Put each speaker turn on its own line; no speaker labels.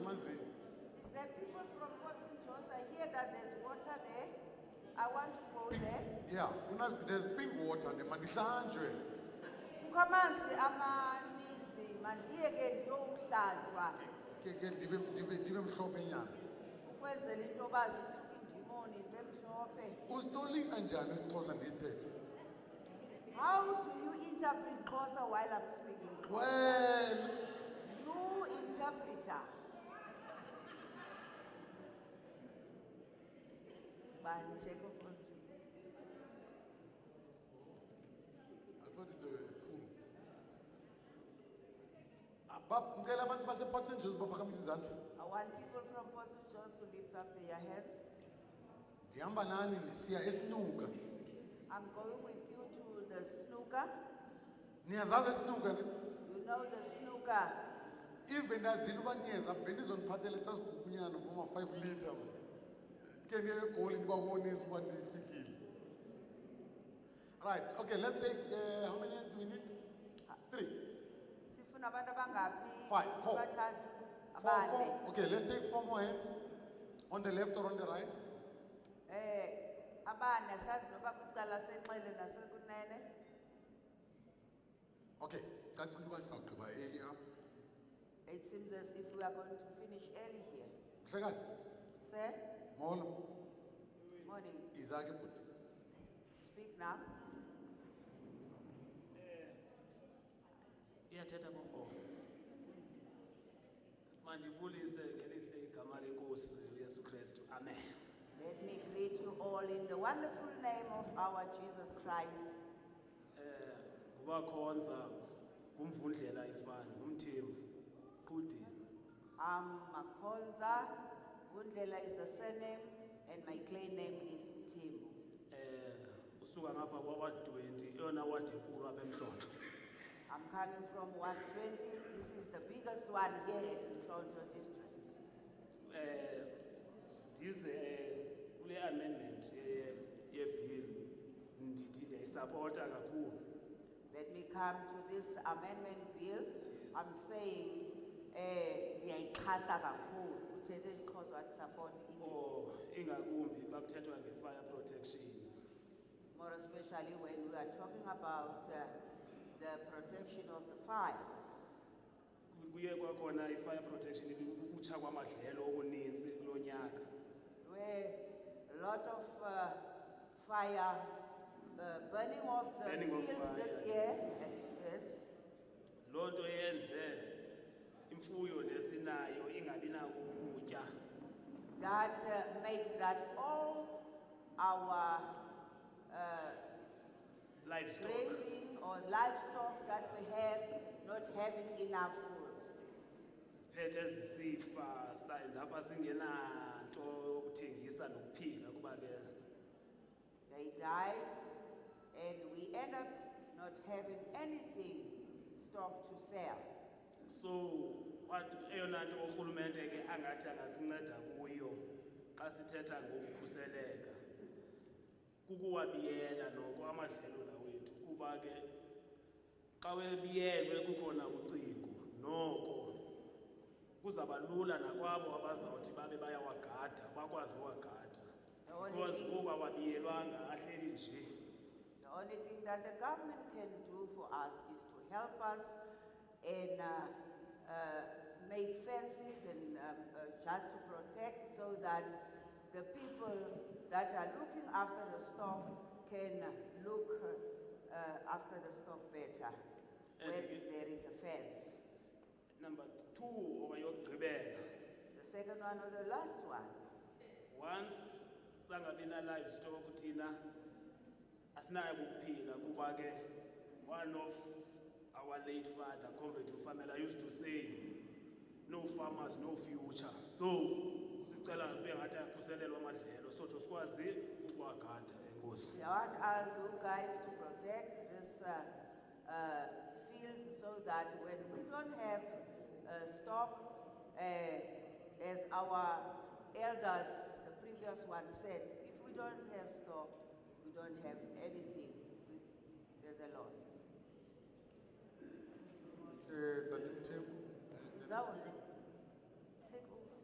I want to go there.
Yeah, una- there's pink water, mandihlanjwe.
Kukho amanzi amaninzi mandiye ke ndiyowuhlanjwa
Ke ke ndibe ndibe ndibe mhlophe nyana.
ukwenzela into yoba zisuke indimoni into emhlophe.
Usitoli kanjani isiXhosa ndisithethe?
How do you interpret Xhosa while I'm speaking?
Well,
You interpreter. Bani nje kufundile.
I thought it's a pool. Abab, ngicela abantu basePort St John's baphakamise izandla.
I want people from Port St. John's to lift up their hands.
Ndihamba nani ndisiya esinuka.
I'm going with you to the snooker.
Niyazazi esinuka ne?
You know the snooker.
If bendazile uba niyeza benizondiphathele sasigugunyana ngoma 5 liter. man. Ke ndiye egoli ndibabonise uba ndifikile. Right, okay, let's take, uh, how many hands do we need? Three,
Sifuna abantu abangapi?
Five, four.
Abathathu.
four,
Abane.
four. Okay, let's take four more hands. On the left or on the right?
Eh, abane sazi noba kwicala senxele nasekunene.
Okay, cacile uba sizawugqiba early apha.
It seems as if we are going to finish early here.
Mhlekazi,
Sir,
molo,
morning.
izake bhuti.
Speak now.
iyathetha kofungomo mandibulise ngelihle igama lenkosi uyesu kristu amen
Let me greet you all in the wonderful name of our Jesus Christ.
um ngubakhonza ngumvundlela ifani ngumthembu qhudini
I'm Makonza. Wundlela is the surname, and my claim name is Mtimbu.
um usuka ngapha kwawadwenti eyona wadi enkulu apha emhlonto
I'm coming from 120. This is the biggest one here in Mthondo district.
um ndize um kule amendment ye- yebill ndithi ndiyayisapota kakhulu
Let me come to this amendment bill. I'm saying, eh, ndiyayixhasa kakhulu. Uthethe isiXhosa wathi support i-
or Oh, ingakumbi bakuthethwa nge-fire protection
more especially when we are talking about uh, the protection of the fire.
kuye kwakhona i-fire protection ukutsha kwamadlelo okuninzi kulo nyaka
where a lot of uh, fire, uh, burning of the
Burning of
fields
fire,
this year.
yes.
Yes.
loo nto yenze imfuyo lesinayo ingabi nako ukutya
That uh, made that all our uh,
livestock
grazing or livestock that we have not having enough food.
siphethe zisifa saendapha singenanto yokuthengisa nokuphila kuba ke
They died, and we end up not having anything stock to sell.
so kwathi- eyona nto urhulumente ke angathi angasinceda kuyo xa sithetha ngokukhuseleka kukuwabiyela noko amadlelo la wethu kuba ke xa webiyelwe kukhona ucingo noko kuzaba lula nakwabo abazawuthi babe bayawagada bakwazi uwagada
The only
because
thing-
kuba wabiyelwanga ahleli nje
The only thing that the government can do for us is to help us and uh, uh, make fences and um, uh, just to protect so that the people that are looking after the stock can look uh, after the stock better when
And-
there is a fence.
number two okayokugqibela
The second one or the last one,
once sangabi na livestock thina asinayo ukuphila kuba ke one of our late father comrade ufamela used to say no farmers no future so sicela bengathi akhuselelwa amadlelo sotsho sikwazi ukuwagada enkosi
we want all you guys to protect this uh, uh, fields so that when we don't have uh, stock, uh, as our elders, the previous one said, if we don't have stock, we don't have anything. We- There's a loss.
Eh, tatimthembu.
Is that one?